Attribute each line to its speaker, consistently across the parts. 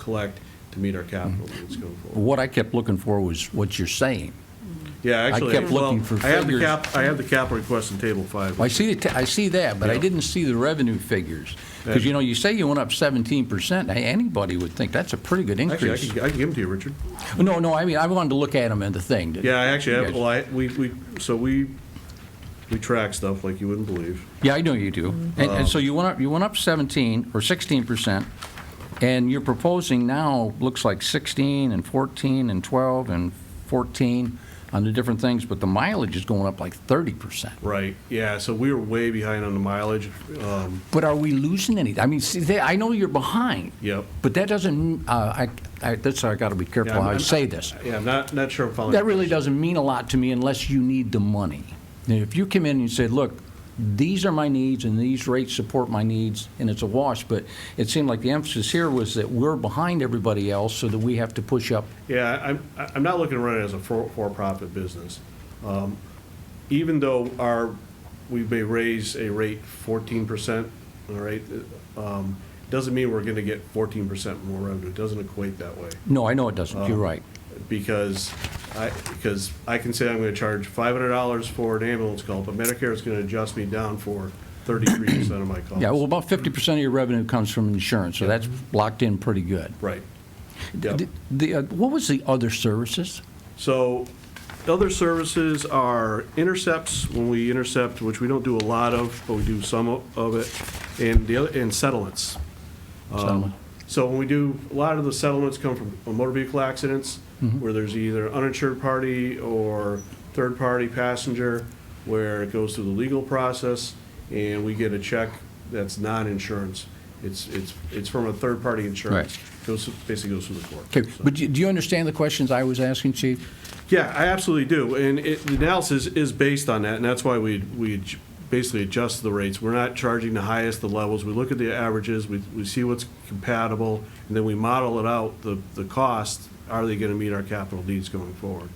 Speaker 1: collect to meet our capital
Speaker 2: Mm-hmm.
Speaker 1: needs going forward.
Speaker 2: What I kept looking for was what you're saying.
Speaker 1: Yeah, actually.
Speaker 2: kept
Speaker 1: well,
Speaker 2: looking for
Speaker 1: I have the
Speaker 2: figures.
Speaker 1: cap, I have the capital request in table five.
Speaker 2: Well, I see, the ta- I see that, but I
Speaker 1: Yeah.
Speaker 2: didn't see the revenue figures. Because, you know, you say you went up 17%, Hey, anybody would think that's a pretty good
Speaker 1: Actually, I
Speaker 2: increase.
Speaker 1: can, I can give them to you, Richard.
Speaker 2: No, no, I mean, I wanted to look at them in the thing.
Speaker 1: Yeah, I actually have,
Speaker 2: Yes.
Speaker 1: well, I, we, we, so we, we track stuff like you wouldn't believe.
Speaker 2: Yeah, I know you do. And,
Speaker 1: Uh-huh.
Speaker 2: and so you went up, you went up 17 or 16%, and you're proposing now, looks like 16 and 14 and 12 and 14 on the different things, but the mileage is going up like 30%.
Speaker 1: Right, yeah, so we were way behind on the mileage. Um,
Speaker 2: But are we losing anything? I mean, see, they- I know you're behind.
Speaker 1: Yep.
Speaker 2: But that doesn't, uh, I, I, that's, I gotta be
Speaker 1: yeah,
Speaker 2: careful
Speaker 1: I'm-
Speaker 2: how I
Speaker 1: I'm-
Speaker 2: say this.
Speaker 1: Yeah, I'm not, not sure I'm following.
Speaker 2: That
Speaker 1: your
Speaker 2: really
Speaker 1: question.
Speaker 2: doesn't mean a lot to me unless you need the money. Now, if you come in and you say, look, these are my needs and these rates support my needs, and it's a wash, but it seemed like the emphasis here was that we're behind everybody else, so that we have to push up.
Speaker 1: Yeah, I'm, I'm not looking to run it as a for- for-profit business. Um, Even though our, we may raise a rate fourteen percent, all right, um, doesn't mean we're gonna get fourteen percent more revenue. It doesn't equate that way.
Speaker 2: No, I know it doesn't,
Speaker 1: Uh-huh.
Speaker 2: you're right.
Speaker 1: Because I, because I can say I'm gonna charge five hundred dollars for an ambulance call, but Medicare is gonna adjust me down for thirty-three percent of my costs.
Speaker 2: Yeah, well, about 50% of your revenue comes from insurance, so that's locked in pretty good.
Speaker 1: Right. Yep.
Speaker 2: The- The, uh, what was the other services?
Speaker 1: So, the other services are intercepts, when we intercept, which we don't do a lot of, but we do some o- of it, and the other, and settlements. Um,
Speaker 2: Settlement.
Speaker 1: So when we do, a lot of the settlements come from motor vehicle accidents,
Speaker 2: Mm-hmm.
Speaker 1: where there's either uninsured party or third-party passenger, where it goes through the legal process, and we get a check that's non-insurance. It's, it's, it's from a third-party insurance. Goes, basically goes through the court.
Speaker 2: Okay,
Speaker 1: So-
Speaker 2: but do do you understand the questions I was asking, Chief?
Speaker 1: yeah, I absolutely do, and it, the analysis is based on that, and that's why we, we ad- basically adjust the rates. We're not charging the highest, the levels, we look at the averages, we, we see what's compatible, and then we model it out, the, the cost, are they gonna meet our capital needs going forward?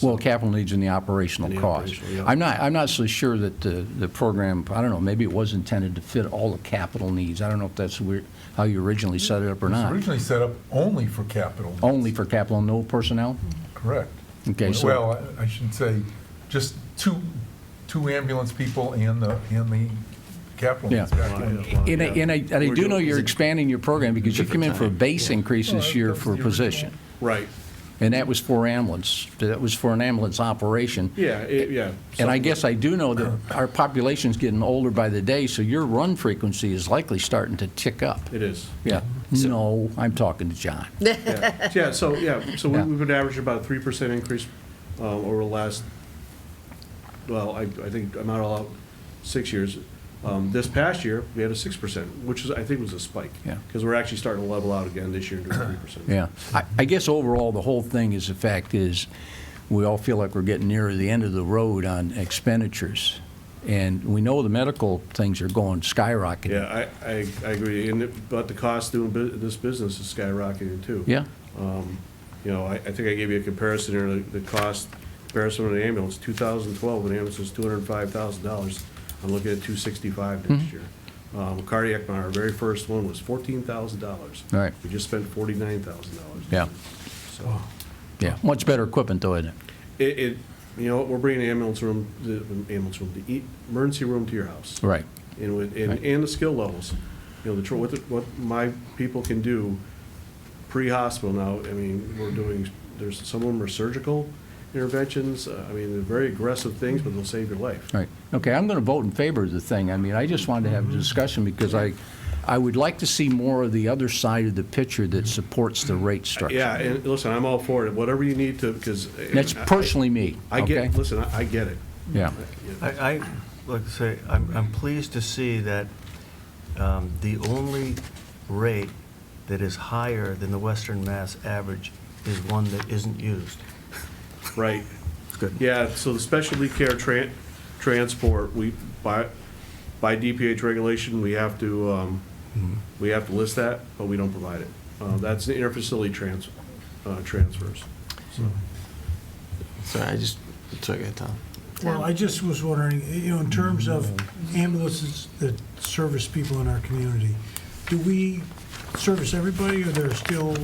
Speaker 2: Well, capital needs and the operational
Speaker 1: And the
Speaker 2: cost.
Speaker 1: operational, yeah.
Speaker 2: I'm not, I'm not so sure that the, the program, I don't know, maybe it was intended to fit all the capital needs. I don't know if that's where- how you originally set it up or
Speaker 3: It was
Speaker 2: not.
Speaker 3: originally set up only for capital. needs.
Speaker 2: Only for capital, no personnel?
Speaker 1: Mm-hmm.
Speaker 3: Correct.
Speaker 2: Okay, so-
Speaker 3: Well, I- I should say, just two, two ambulance people and the, and the capital.
Speaker 2: Yeah.
Speaker 3: needs guy.
Speaker 2: And I, and I, and I
Speaker 1: We're
Speaker 2: do know
Speaker 1: doing-
Speaker 2: you're expanding your program because you came in for a base increase this
Speaker 3: Well,
Speaker 2: year
Speaker 3: that was
Speaker 2: for a
Speaker 3: the original.
Speaker 2: position.
Speaker 1: Right,
Speaker 2: And that was for ambulance, that was for an ambulance operation.
Speaker 1: yeah, it, yeah.
Speaker 2: And I guess I do know that our population's getting older by the day, so your run frequency is likely starting to tick up.
Speaker 1: It is.
Speaker 2: Yeah. No, I'm talking to John.
Speaker 1: Yeah, Yeah, so, yeah, so we-
Speaker 2: Yeah.
Speaker 1: we've been averaging about a three percent increase uh, over the last, well, I, I think, I'm not all out, six years. Um, This past year, we had a six percent, which is, I think was a spike.
Speaker 2: Yeah.
Speaker 1: Because we're actually starting to level out again this year and doing three percent.
Speaker 2: Yeah. I, I guess overall, the whole thing is, the fact is, we all feel like we're getting nearer the end of the road on expenditures. And we know the medical things are going skyrocketing.
Speaker 1: Yeah, I, I, I agree, and, it- but the cost doing bu- this business is skyrocketing too.
Speaker 2: Yeah?
Speaker 1: You know, I, I think I gave you a comparison here, the, the cost comparison of an ambulance, two thousand twelve, an ambulance was two hundred and five thousand dollars. I'm looking at two sixty-five
Speaker 2: Mm-hmm.
Speaker 1: next year. Um, cardiac, monitor, our very first one was fourteen thousand dollars.
Speaker 2: Right.
Speaker 1: We just spent forty-nine thousand dollars.
Speaker 2: Yeah.
Speaker 1: So,
Speaker 2: Yeah. Much better equipment, though, isn't it?
Speaker 1: it, it, you know, we're bringing the ambulance room, the ambulance room, the e- emergency room to your house
Speaker 2: Right.
Speaker 1: and with, and, and the skill levels. You know, the, tr- what, the- what my people can do pre-hospital now, I mean, we're doing, there's, some of them are surgical interventions, uh, I mean, they're very aggressive things, but they'll save your life.
Speaker 2: Right. Okay, I'm going to vote in favor of the thing. I mean, I just wanted to have a discussion because I, I would like to see more of the other side of the picture that supports the rate structure.
Speaker 1: Yeah, and listen, I'm all for it, whatever you need to, because.
Speaker 2: That's personally me,
Speaker 1: I get,
Speaker 2: okay?
Speaker 1: listen, I I get it.
Speaker 2: Yeah.
Speaker 4: I, I, like to say, I'm, I'm pleased to see that um, the only rate that is higher than the Western Mass average is one that isn't used.
Speaker 1: Right.
Speaker 4: Good.
Speaker 1: Yeah, so the specialty care tran, transport, we, by, by DPH regulation, we have to, um, we have to list that, but we don't provide it. Uh, that's the interfacility trans, uh, transfers.
Speaker 5: Sorry, I just took it, Tom.
Speaker 6: Well, I just was wondering, you know, in terms of ambulances that service people in our community, do we service everybody, or there are still